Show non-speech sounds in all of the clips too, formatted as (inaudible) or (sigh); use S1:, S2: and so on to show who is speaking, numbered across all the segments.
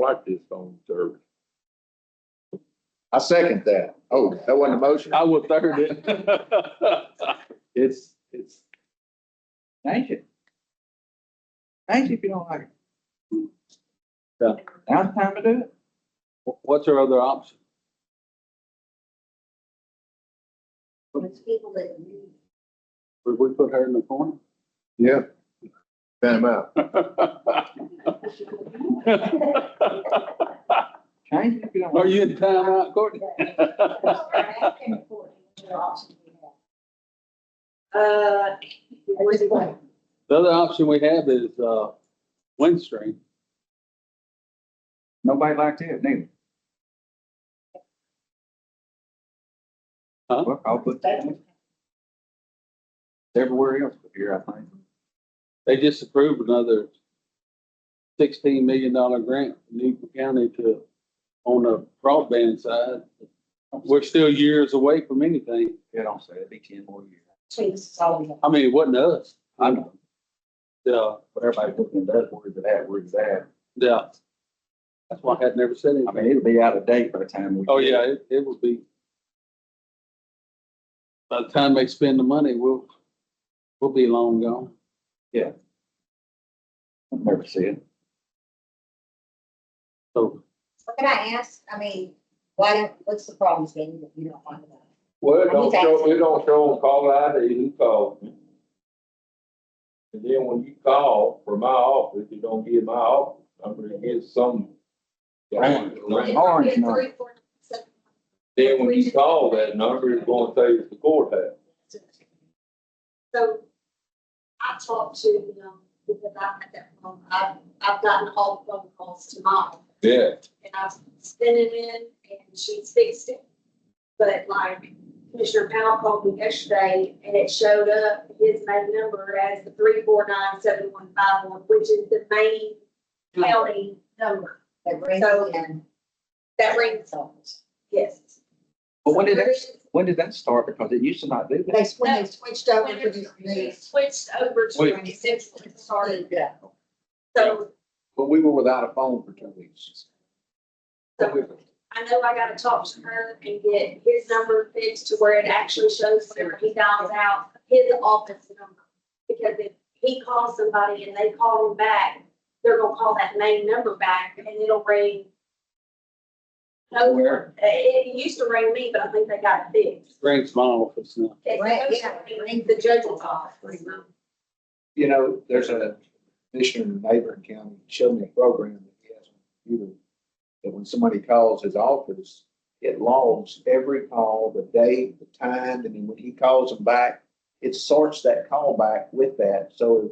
S1: like this on Thursday. I second that. Oh, that wasn't a motion.
S2: I will third it.
S1: It's, it's,
S3: Thank you. Thank you if you don't like it.
S2: Yeah.
S3: Now's the time to do it.
S2: What's our other option?
S4: It's people that need.
S2: Would we put her in the corner?
S1: yeah. Fan him out.
S3: Change it if you don't
S2: Are
S3: like it.
S2: you in timeout, Courtney? (laughs)
S4: Uh, where's it going?
S2: The other option we have is, uh, Windstream.
S3: Nobody liked it, neither.
S2: Huh?
S3: Well, I'll put that in. everywhere else but here, I think.
S2: They just approved another sixteen million dollar grant, from Newton County to, on the broadband side. We're still years away from anything.
S3: Yeah, don't say it, it'd be ten more years.
S4: Between this is all we have.
S2: I mean, it wasn't us.
S3: I know,
S2: Yeah,
S3: but everybody's looking at that, where's it at, where's that?
S2: yeah. That's why I had never
S3: I
S2: said anything.
S3: mean, it'll be out of date by the time we.
S2: Oh,
S3: get it.
S2: yeah, it, it will be. By the time they spend the money, we'll, we'll be long gone.
S3: I'll Never see it.
S2: So,
S4: So Can I ask, I mean, why don't, what's the problem, Stan, that you don't want to know?
S5: Well, it don't
S4: He's
S5: show,
S4: asking.
S5: it don't show on call ID who called. me. And then when you call from my office, you don't get my office, I'm gonna get some.
S3: Right.
S5: Right.
S3: orange
S4: Three,
S3: now.
S4: four, seven,
S5: Then when you call that number, it's gonna say it's the courthouse.
S4: six. So I talked to, um, because I had that phone, I've, I've gotten all the phone calls tomorrow.
S5: Yeah.
S4: and I was spinning in and she fixed it. But like Commissioner Powell called me yesterday and it showed up his main number as the three four nine seven one five one, which is the main county number. That brings So- in. That rings, yes.
S3: But when did that, when did that start? Because it used to not do that.
S4: They, when they switched over to this
S6: They
S4: new.
S6: switched over
S2: Wait.
S6: to twenty-six when it started.
S4: Yeah. So,
S1: But we were without a phone for two weeks.
S4: so I know I gotta talk to her and get his number fixed to where it actually shows whenever he dials out his office number. Because if he calls somebody and they call him back, they're gonna call that main number back and it'll ring. No,
S3: Where?
S4: it, it used to ring me, but I think they got it fixed.
S2: Grant's my office now.
S4: It's
S6: Right,
S4: supposed
S6: yeah.
S4: to ring the judge's office.
S1: You know, there's a commissioner in a neighboring county showed me a program that he has on the computer. That when somebody calls his office, it logs every call, the date, the time, and then when he calls them back, it sorts that call back with that. So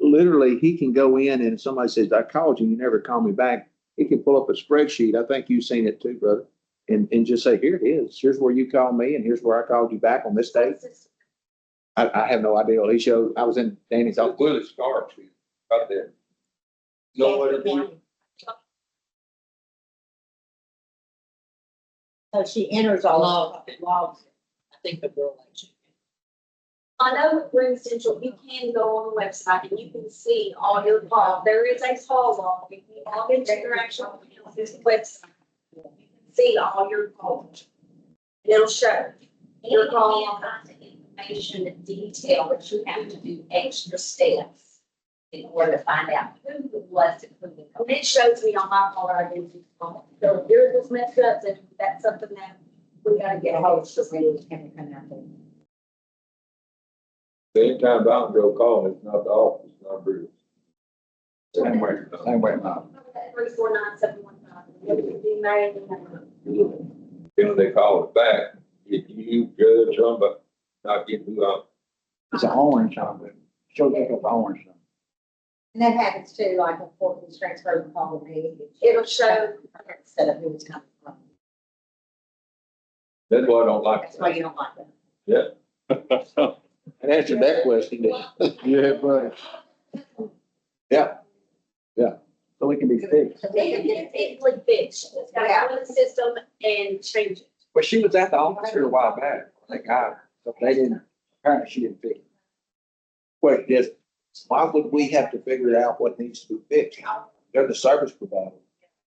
S1: literally, he can go in and if somebody says, I called you, you never called me back. He can pull up a spreadsheet. I think you've seen it too, brother. And, and just say, here it is. Here's where you called me and here's where I called you back on this date. I, I have no idea. He showed, I was in Danny's office.
S5: Willie Starks, right there. Know what it is?
S6: So she enters all of it, logs it. I think the girl likes it.
S4: I know with Green Central, you can go on the website and you can see all your calls. There is a call log. If you log into your actual website, you can see all your calls. And It'll show your call log.
S6: information in detail, but you have to do extra steps in order to find out who it was and who the.
S4: And it shows me on my caller identity. So if yours was messed up, then that's something that we gotta get a hold of.
S5: Anytime Bounce Joe call, it's not the office number.
S3: Same way, same way now.
S4: Three four nine seven one nine. It'll be married in that number.
S5: Then when they call it back, if you judge somebody, not getting who I'm
S3: It's an orange on it. Shows you the orange on
S6: And that happens too, like a fourth and transfer from call me.
S4: It'll show,
S6: Instead of who it's coming from.
S5: That's why I don't like
S6: That's why you don't like that.
S1: And answered that question. didn't it?
S2: Yeah, but.
S3: So it can be fixed.
S4: they can get it easily fixed. It's gotta go in the system and change it.
S3: But she was at the office here a while back. That guy, but they didn't, apparently she didn't fix it.
S1: Question is, why would we have to figure out what needs to be fixed? They're the service provider.